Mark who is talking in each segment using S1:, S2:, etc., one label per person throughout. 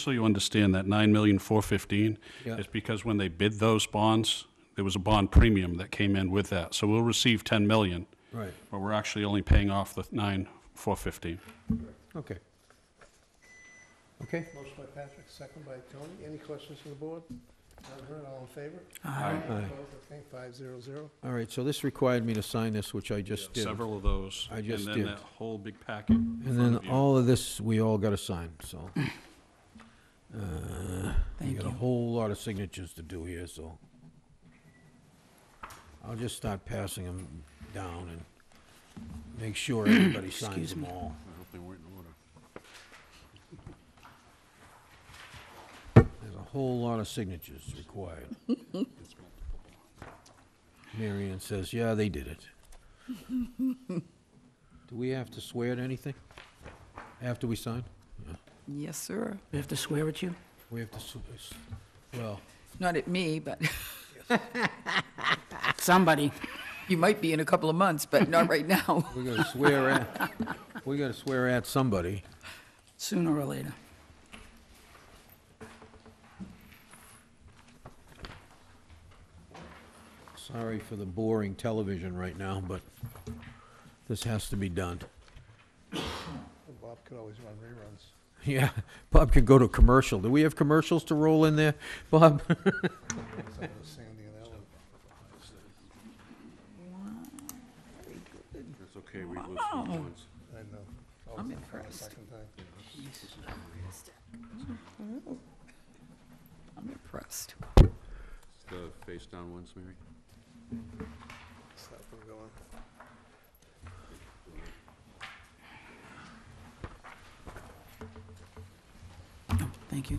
S1: So you understand that nine million four fifteen
S2: Yeah.
S1: is because when they bid those bonds, there was a bond premium that came in with that. So we'll receive ten million,
S2: Right,
S1: but we're actually only paying off the nine four fifteen.
S2: okay. Okay,
S3: Motion by Patrick, second by Tony. Any questions from the board? None heard, all in favor?
S2: Aye.
S3: Opposed, abstained, five zero zero.
S2: all right, so this required me to sign this, which I just did.
S1: Several of those.
S2: I just
S1: And
S2: did.
S1: then that whole big packet. in
S2: And
S1: front
S2: then
S1: of you.
S2: all of this, we all got to sign, so. Uh, We
S4: Thank
S2: got a
S4: you.
S2: whole lot of signatures to do here, so. I'll just start passing them down and make sure everybody signs
S4: Excuse
S2: them
S4: me.
S2: all. There's a whole lot of signatures required. Marion says, yeah, they did it. Do we have to swear to anything after we sign?
S4: Yes, sir. We have to swear at you?
S2: We have to, s- s- well,
S4: Not at me, but
S5: Somebody.
S4: you might be in a couple of months, but not right now,
S2: we gotta swear at, we gotta swear at somebody.
S5: Sooner or later.
S2: Sorry for the boring television right now, but this has to be done.
S3: Bob could always run reruns.
S2: Yeah, Bob could go to commercial. Do we have commercials to roll in there, Bob?
S3: Some of the Sandy and Ellen.
S6: That's okay, we lose some points.
S3: I know. Always
S4: I'm
S3: the
S4: impressed.
S3: Second time.
S4: I'm impressed.
S6: The face down ones, Mary?
S3: Stop them going.
S5: Oh, Thank you.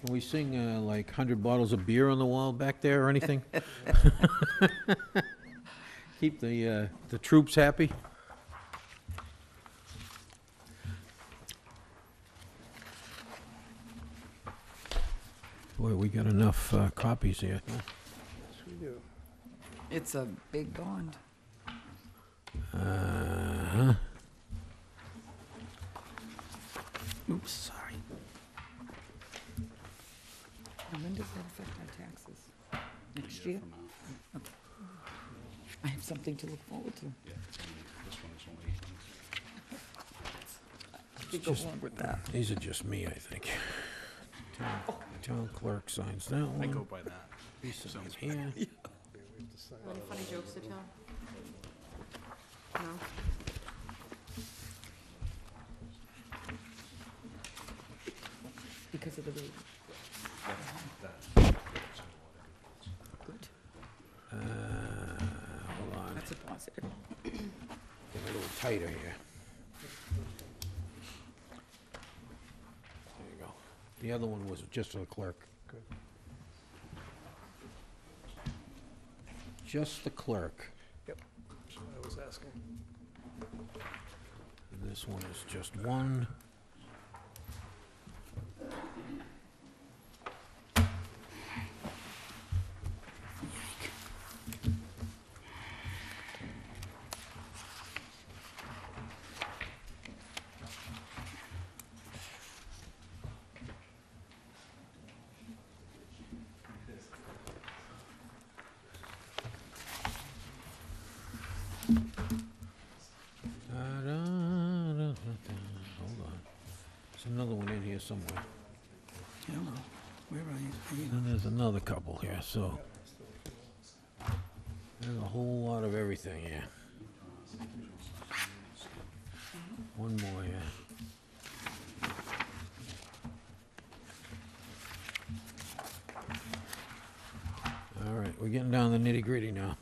S2: Can we sing uh, like 100 bottles of beer on the wall back there or anything? Keep the, uh, the troops happy? Boy, we got enough uh, copies here.
S3: Yes, we do.
S4: It's a big bond.
S2: Uh-huh.
S5: Oops, sorry.
S4: And when does that affect our taxes? Next year? Mm, Okay. I have something to look forward to.
S1: Yeah, it's only- this one is only
S4: I could go on with that.
S2: These are just me, I think. Town- Town clerk signs that
S1: I go
S2: one.
S1: by that.
S2: We sign here.
S3: Yeah, we have to sign.
S7: Any funny jokes to tell? No?
S4: Because of the baby. Good.
S2: Uh, Hold on.
S4: That's a positive.
S2: Get a little tighter here. There you go. The other one was just for the clerk.
S3: Good.
S2: Just the clerk.
S3: That's what I was asking.
S2: And this one is just one. Da-da-da-da-da. Hold on. There's another one in here somewhere.
S5: Hello. Where are you? Are you?
S2: Then there's another couple here, so. There's a whole lot of everything here. One more here. All right, we're getting down to the nitty gritty now.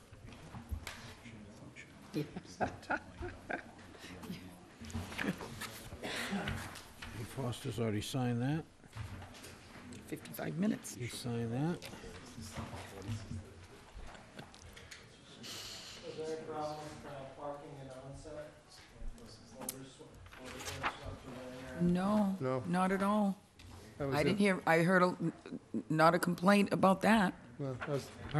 S2: Hey, Foster's already signed that.
S4: 55 minutes.
S2: You sign that.
S4: No.
S3: No.
S4: Not at all.
S3: That was
S4: I
S3: it.
S4: didn't hear, I heard a, not a complaint about that.
S3: Well, I was-